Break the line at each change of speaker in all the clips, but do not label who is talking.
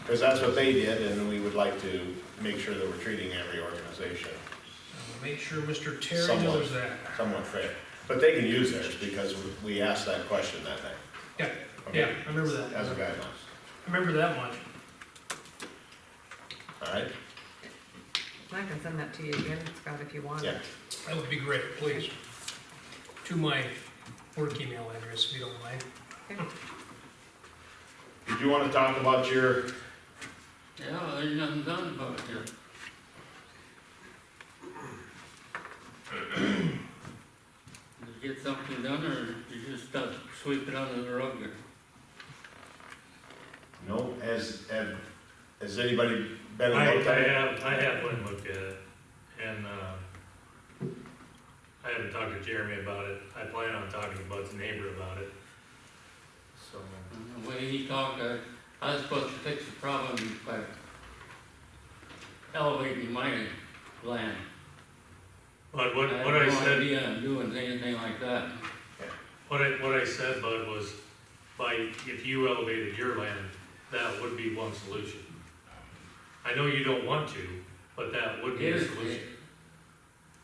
Because that's what they did, and we would like to make sure that we're treating every organization
I'll Make sure Mr. Terry
Someone.
knows that.
somewhat fair. But they can use theirs because we asked that question that night,
Yeah, yeah, I remember that.
as a
I
guideline,
remember that much.
all right?
I can send that to you again, Scott, if you want.
Yeah,
That would be great, please. To my work email address, if you don't mind.
did you want to talk about your,
Yeah, there's nothing done about it yet. Did you get something done, or you just stop sweeping under the rug there?
no, has, have- has anybody been
I, I
in contact?
have, I have went and looked at it, and, uh, I haven't talked to Jeremy about it, I plan on talking to Bud's neighbor about it, so.
And The way he talked, I, I was supposed to fix the problem by elevating my land.
But what, what I
have no
said,
idea of doing anything like that.
what I, what I said, Bud, was by, if you elevated your land, that would be one solution. I know you don't want to, but that would be a
Here's-
solution.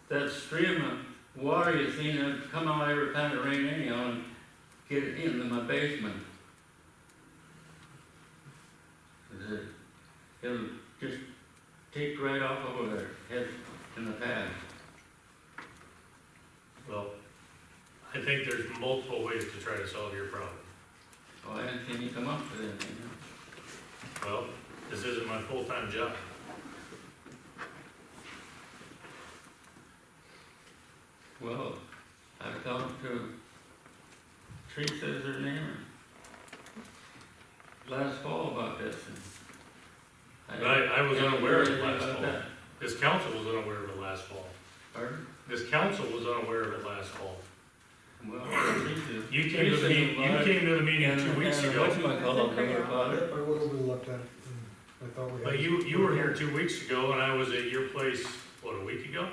That stream of water you seen it come out every time it rained anyhow and get it into my basement. The- It'll just take right off over there, head in the pad.
Well, I think there's multiple ways to try to solve your problem.
Oh, I didn't see you come up with anything.
Well, this isn't my full-time job.
Well, I talked to Teresa's her name, or last fall about this. and
But I, I was
didn't
unaware of
hear
it
anything
last
about
fall.
that.
This council was unaware of it last fall.
Pardon?
This council was unaware of it last fall.
Well,
You came to the meeting, you came to the meeting two weeks ago,
I went over and looked at it, and I thought we had.
but you, you were here two weeks ago, and I was at your place, what, a week ago?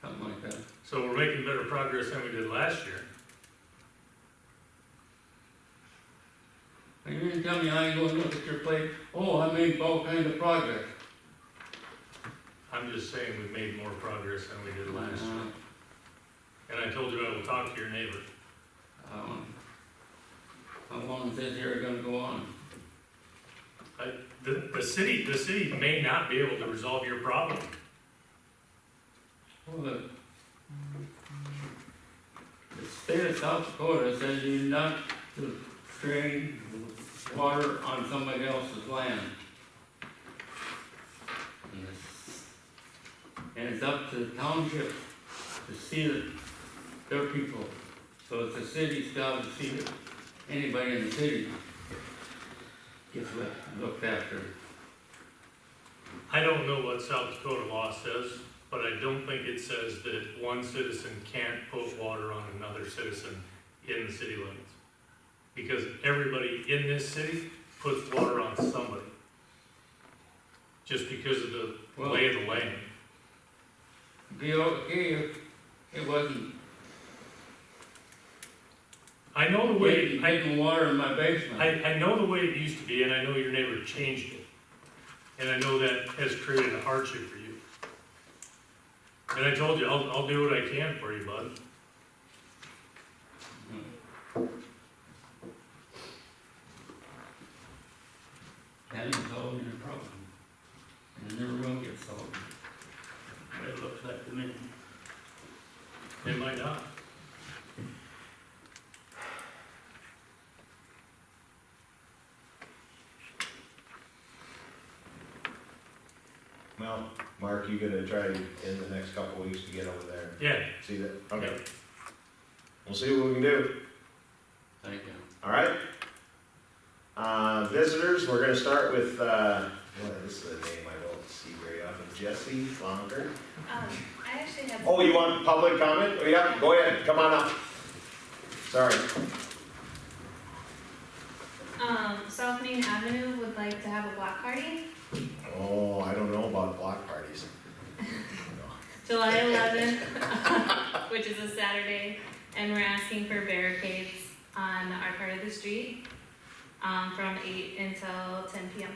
Something like that.
So we're making better progress than we did last year.
And you didn't tell me I ain't gonna look at your plate, oh, I made all kinds of progress.
I'm just saying we made more progress than we did
Uh,
last year. And I told you I will talk to your neighbor.
I want- How long is this here gonna go on?
The, the city, the city may not be able to resolve your problem.
Well, the the state of South Dakota says you're not to drain water on somebody else's land. And it's- And it's up to the township to see that their people, so it's the city's job to see that anybody in the city gets loo- looked after.
I don't know what South Dakota law says, but I don't think it says that one citizen can't put water on another citizen in the city limits. Because everybody in this city puts water on somebody. Just because of the
Well-
lay of the land.
Be okay if it wasn't,
I know the way,
getting
I,
getting water in my basement.
I, I know the way it used to be, and I know your neighbor changed it. And I know that has created a hardship for you. And I told you, I'll, I'll do what I can for you, bud.
Hmm. That is solving a problem. And it never will get solved. It looks like to me.
It might not.
Well, Mark, you gonna try in the next couple weeks to get over there,
Yeah,
and see that, okay. We'll see what we can do.
Thank you.
All right. Uh, visitors, we're gonna start with, uh, what is the name I don't see very often, Jesse Longer.
Um, I actually have.
Oh, you want public comment? Oh, yeah, go ahead, come on up. Sorry.
Um, South Main Avenue would like to have a block party,
Oh, I don't know about block parties.
July eleventh, which is a Saturday, and we're asking for barricades on our part of the street. um, from eight until ten PM.